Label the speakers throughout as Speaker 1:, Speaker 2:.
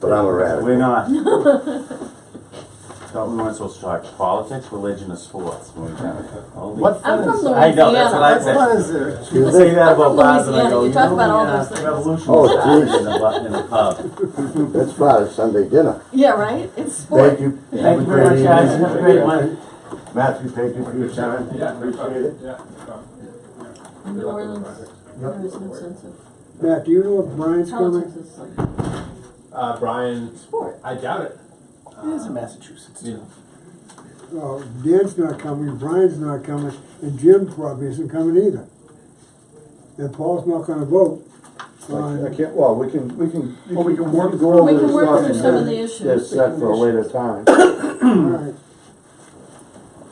Speaker 1: but I'm a
Speaker 2: We're
Speaker 1: radical.
Speaker 2: not. Thought we weren't supposed to talk politics, religion, or sports. when we done it. Only-
Speaker 3: What
Speaker 4: I'm
Speaker 3: fun
Speaker 4: from
Speaker 3: is,
Speaker 4: Louisiana.
Speaker 2: I know, that's what I
Speaker 3: what
Speaker 2: said.
Speaker 3: fun is there?
Speaker 1: Excuse
Speaker 2: Say that
Speaker 4: I'm from
Speaker 2: about Boston, I
Speaker 4: Louisiana.
Speaker 2: go,
Speaker 4: You
Speaker 2: you
Speaker 4: talk
Speaker 2: know,
Speaker 4: about all
Speaker 2: when,
Speaker 4: those
Speaker 2: uh,
Speaker 4: things.
Speaker 2: Revolution
Speaker 1: Oh,
Speaker 2: started in the, bu- in the pub.
Speaker 1: That's part of Sunday dinner.
Speaker 4: Yeah, right? It's sport.
Speaker 1: Thank you.
Speaker 2: Thank you very much, guys, have a great one.
Speaker 1: Matthew, thank you for your time.
Speaker 5: Yeah, appreciate it. Yeah.
Speaker 4: New Orleans, there is no sense of,
Speaker 3: Matt, do you know if Brian's coming?
Speaker 4: politics is like
Speaker 5: Uh, Brian,
Speaker 4: sport.
Speaker 5: I doubt it.
Speaker 2: It is in Massachusetts.
Speaker 5: Yeah.
Speaker 3: Oh, Dan's not coming, Brian's not coming, and Jim probably isn't coming either. And Paul's not gonna vote.
Speaker 1: I
Speaker 3: on-
Speaker 1: can't, well, we can, we can, well, we can work.
Speaker 4: We can work through some of the
Speaker 1: It's
Speaker 4: issues.
Speaker 1: set for a later time.
Speaker 3: Alright,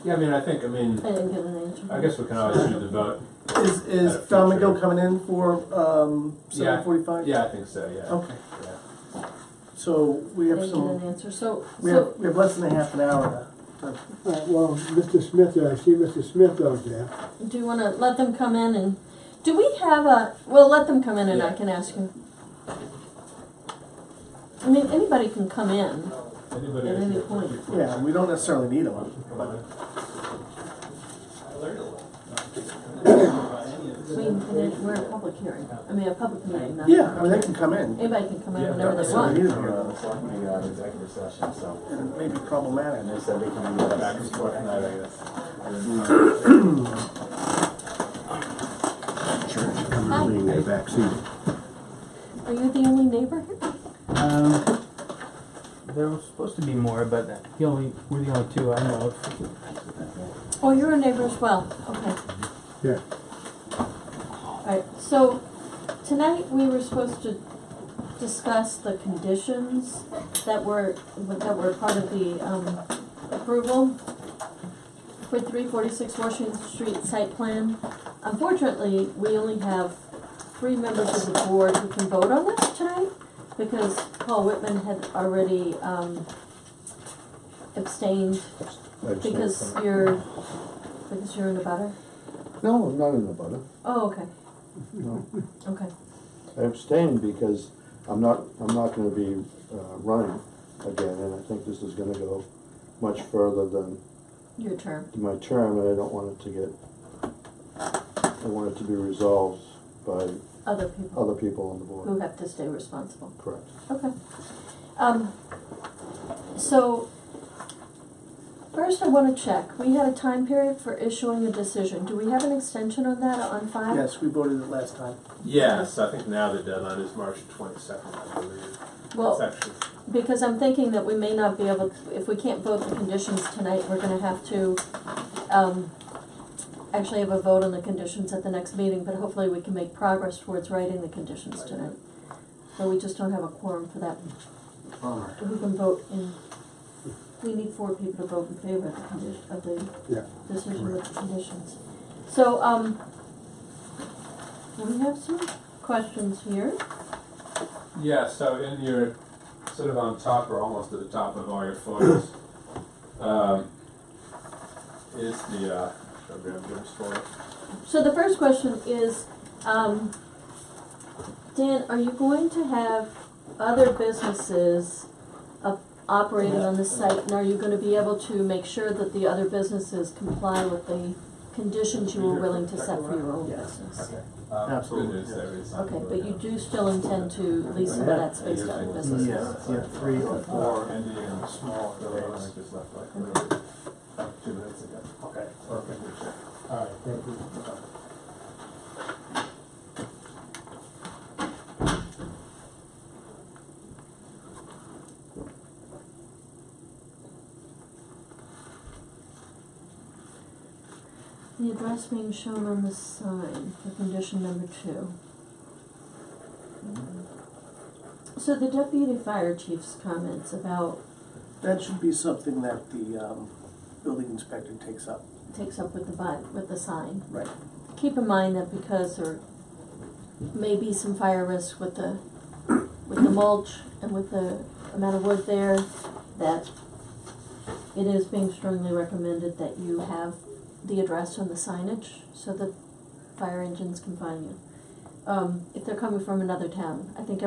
Speaker 5: Yeah, I mean, I think, I mean,
Speaker 4: I didn't get an answer.
Speaker 5: I guess we can always do the vote.
Speaker 6: Is,
Speaker 5: Uh,
Speaker 6: is Domingo
Speaker 5: future.
Speaker 6: coming in for, um,
Speaker 5: Yeah.
Speaker 6: seven forty-five?
Speaker 5: Yeah, I think so,
Speaker 4: Oh.
Speaker 5: yeah.
Speaker 6: Okay,
Speaker 5: Yeah.
Speaker 6: so we
Speaker 4: I
Speaker 6: have
Speaker 4: didn't get an
Speaker 6: some,
Speaker 4: answer, so,
Speaker 6: we have,
Speaker 4: so,
Speaker 6: we have less than a half an hour now.
Speaker 3: alright, well, Mr. Smith, I see Mr. Smith out there.
Speaker 4: do you wanna let them come in and, do we have a, well, let them come in and I
Speaker 5: Yeah.
Speaker 4: can ask him. I mean, anybody can come in
Speaker 5: Anybody?
Speaker 4: at any point.
Speaker 6: Yeah, we don't necessarily need them.
Speaker 4: I mean, and it- we're a public hearing, I mean, a public meeting, not.
Speaker 6: Yeah, I mean, they can come in.
Speaker 4: Anybody can come in
Speaker 5: Yeah,
Speaker 4: whenever they
Speaker 6: So we
Speaker 4: want.
Speaker 6: need them, uh,
Speaker 7: We are in executive session, so
Speaker 6: and it may be problematic.
Speaker 7: they said we can go back and forth tonight, I guess.
Speaker 4: Hi, Are you the only neighbor here?
Speaker 8: Um, there was supposed to be more, but the only we're the only two I know of.
Speaker 4: Oh, you're a neighbor as well, okay.
Speaker 3: Yeah.
Speaker 4: Alright, so tonight we were supposed to discuss the conditions that were, that were part of the, um, approval for three forty-six Washington Street site plan. Unfortunately, we only have three members of the board who can vote on this tonight because Paul Whitman had already, um, abstained because you're, because you're in a butter?
Speaker 1: No, I'm not in the butter.
Speaker 4: Oh, okay,
Speaker 1: No.
Speaker 4: okay.
Speaker 1: I abstained because I'm not, I'm not gonna be, uh, running again, and I think this is gonna go much further than
Speaker 4: Your term.
Speaker 1: my term, and I don't want it to get, I want it to be resolved by
Speaker 4: Other people
Speaker 1: other people on the
Speaker 4: who
Speaker 1: board.
Speaker 4: have to stay responsible.
Speaker 1: Correct.
Speaker 4: Okay. Um, so, first I wanna check, we had a time period for issuing a decision. Do we have an extension on that on five?
Speaker 6: Yes, we voted it last time.
Speaker 5: Yeah, so I think now the deadline is March twenty-second, I believe. It's
Speaker 4: Well,
Speaker 5: actually,
Speaker 4: because I'm thinking that we may not be able, if we can't vote the conditions tonight, we're gonna have to, um, actually have a vote on the conditions at the next meeting, but hopefully we can make progress towards writing the conditions tonight. So we just don't have a quorum for that
Speaker 3: Alright.
Speaker 4: Who can vote in, we need four people to vote in favor of the condition, of
Speaker 3: Yeah.
Speaker 4: the decision with the conditions. So, um, we have some questions here.
Speaker 5: yeah, so in your, sort of on top or almost at the top of all your photos, um, is the, uh, I'll grab yours for it.
Speaker 4: So the first question is, um, Dan, are you going to have other businesses up- operating on the site? And are you gonna be able to make sure that the other businesses comply with the conditions you were willing to set for your own business?
Speaker 5: Okay. Um,
Speaker 6: Absolutely,
Speaker 5: good news
Speaker 6: yes.
Speaker 5: there is-
Speaker 4: Okay, but you do still intend to lease some of that space to other businesses?
Speaker 6: Yes, yeah, three or four.
Speaker 5: Or ending in a small, the one I just left like literally two minutes ago. Okay. Perfect. All right, thank you.
Speaker 4: The address being shown on the sign for condition number two. So the deputy fire chief's comments about,
Speaker 6: That should be something that the, um, building inspector takes up.
Speaker 4: takes up with the vi with the sign.
Speaker 6: Right.
Speaker 4: Keep in mind that because there may be some fire risk with the, with the mulch and with the amount of wood there, that it is being strongly recommended that you have the address on the signage so that fire engines can find you. Um, if they're coming from another town, I think